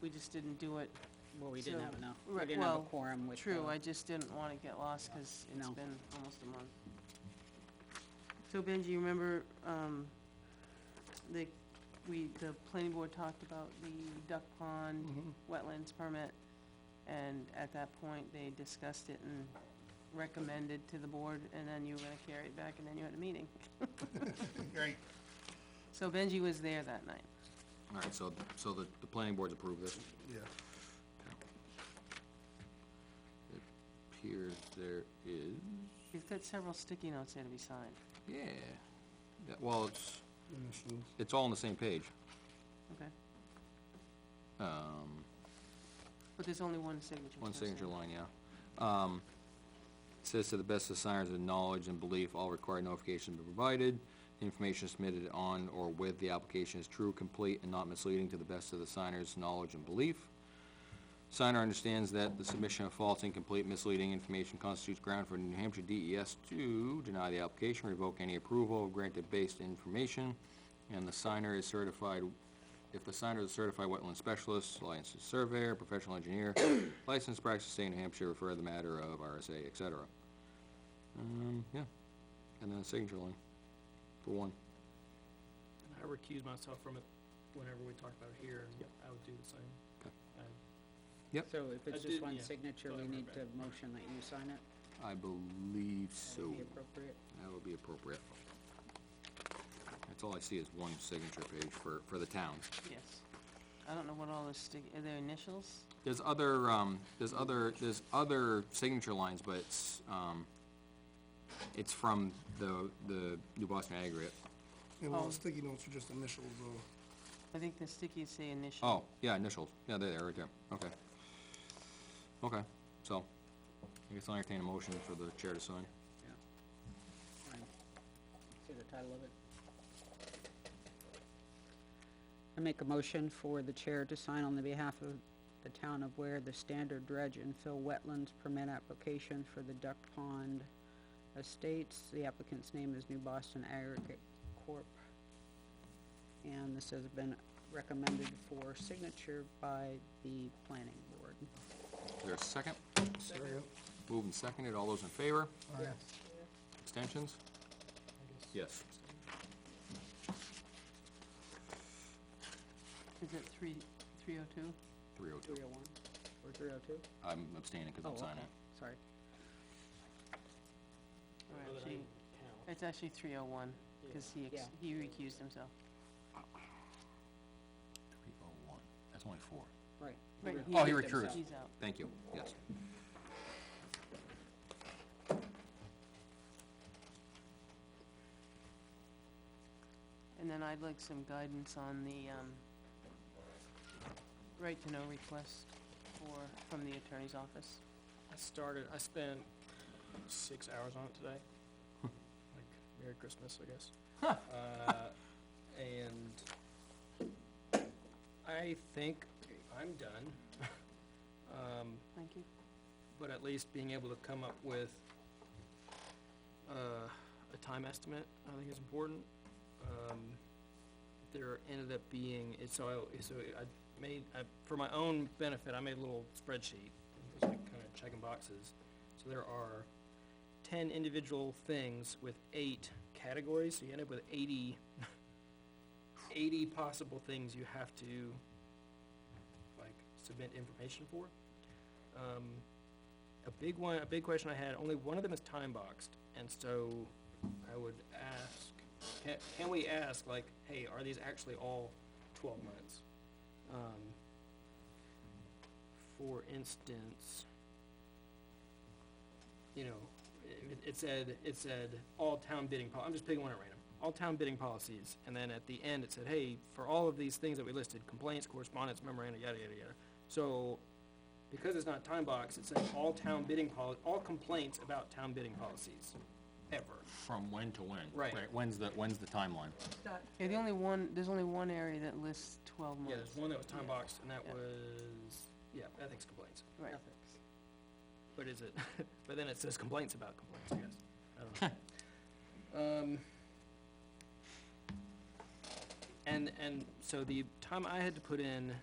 we just didn't do it. Well, we didn't have So, enough, right, we didn't have a well, quorum with True, the- I just didn't want to get lost because it's No. been almost a month. So Benji, you remember, um, the, we, the planning board talked about the duck pond wetlands permit, and at that point, they discussed it and recommended to the board, and then you were gonna carry it back, and then you had a meeting. Right. So Benji was there that night. All right, so, so the, the planning board's approved this. Yeah. It appears there is, He's got several sticky notes there to be signed. yeah. Yeah, Well, it's, it's all on the same page. Okay. Um, But there's only one signature. One so it's not- signature line, yeah. Um, it Says to the best of signers of knowledge and belief, all required notifications be provided. The Information submitted on or with the application is true, complete, and not misleading to the best of the signer's knowledge and belief. Signer understands that the submission of false, incomplete, misleading information constitutes ground for New Hampshire DES to deny the application, revoke any approval granted based information, and the signer is certified, if the signer is a certified wetland specialist, licensed surveyor, professional engineer, licensed practice state of New Hampshire, refer the matter of RSA, et cetera. Um, yeah, and then a signature line for one. I recuse myself from it whenever we talk about it here, and I would do the same. Okay. I- Yep. So if I it's just did, one yeah, signature, so I we wrote need back. to motion that you sign it? I believe That so. would be appropriate. That would be appropriate. That's all I see is one signature page for, for the town. Yes. I don't know what all the stick, are there initials? There's other, um, there's other, there's other signature lines, but it's, um, it's from the, the New Boston Aggregate. And all Oh. the sticky notes are just initials, I though. think the stickies say initial. Oh, yeah, initials, yeah, there, they are, right there, okay. Okay, so, I guess I'll entertain a motion for the chair to sign. Yeah. Fine. See the title of it? I make a motion for the chair to sign on the behalf of the town of Ware the standard dredge and fill wetlands permit application for the Duck Pond Estates. The applicant's name is New Boston Aggregate Corp. And this has been recommended for signature by the planning board. Is there a second? Second. Moved and seconded, all those in favor? Aye. Extensions? Yes. Is it three, three oh two? Three oh two. Three oh one or three oh two? I'm abstaining because Oh, I'm okay, signing. sorry. Or Well, then I actually, count. it's actually three oh one, because he, ex- Yeah. he recused himself. Three oh one, that's only four. Right. Right. Oh, he recused recruited. himself. He's out. Thank you, yes. And then I'd like some guidance on the, um, right-to-know request for, from the attorney's office. I started, I spent six hours on it today. Like, Merry Christmas, I guess. Uh, And I think I'm done. Um, Thank you. but at least being able to come up with uh, a time estimate, I think is important. Um, There ended up being, it- so I, so I made, I- for my own benefit, I made a little spreadsheet, just like kind of checking boxes. So there are ten individual things with eight categories, so you end up with eighty, eighty possible things you have to, like, submit information for. Um, a big one, a big question I had, only one of them is time boxed, and so I would ask, can, can we ask, like, hey, are these actually all twelve months? Um, for instance, you know, it, it said, it said, all town bidding pol, I'm just picking one at random, all town bidding policies, and then at the end, it said, hey, for all of these things that we listed, complaints, correspondence, memoranda, yada, yada, yada. So, because it's not time box, it says all town bidding poli, all complaints about town bidding policies, ever. From when to when? Right. When's the, when's the timeline? Yeah, the only one, there's only one area that lists twelve months. Yeah, there's one that was time boxed, and that Yeah. was, yeah, ethics complaints, Right. Ethics. but is it, but then it says complaints about complaints, I guess, I don't know. Um, and, and so the time I had to put in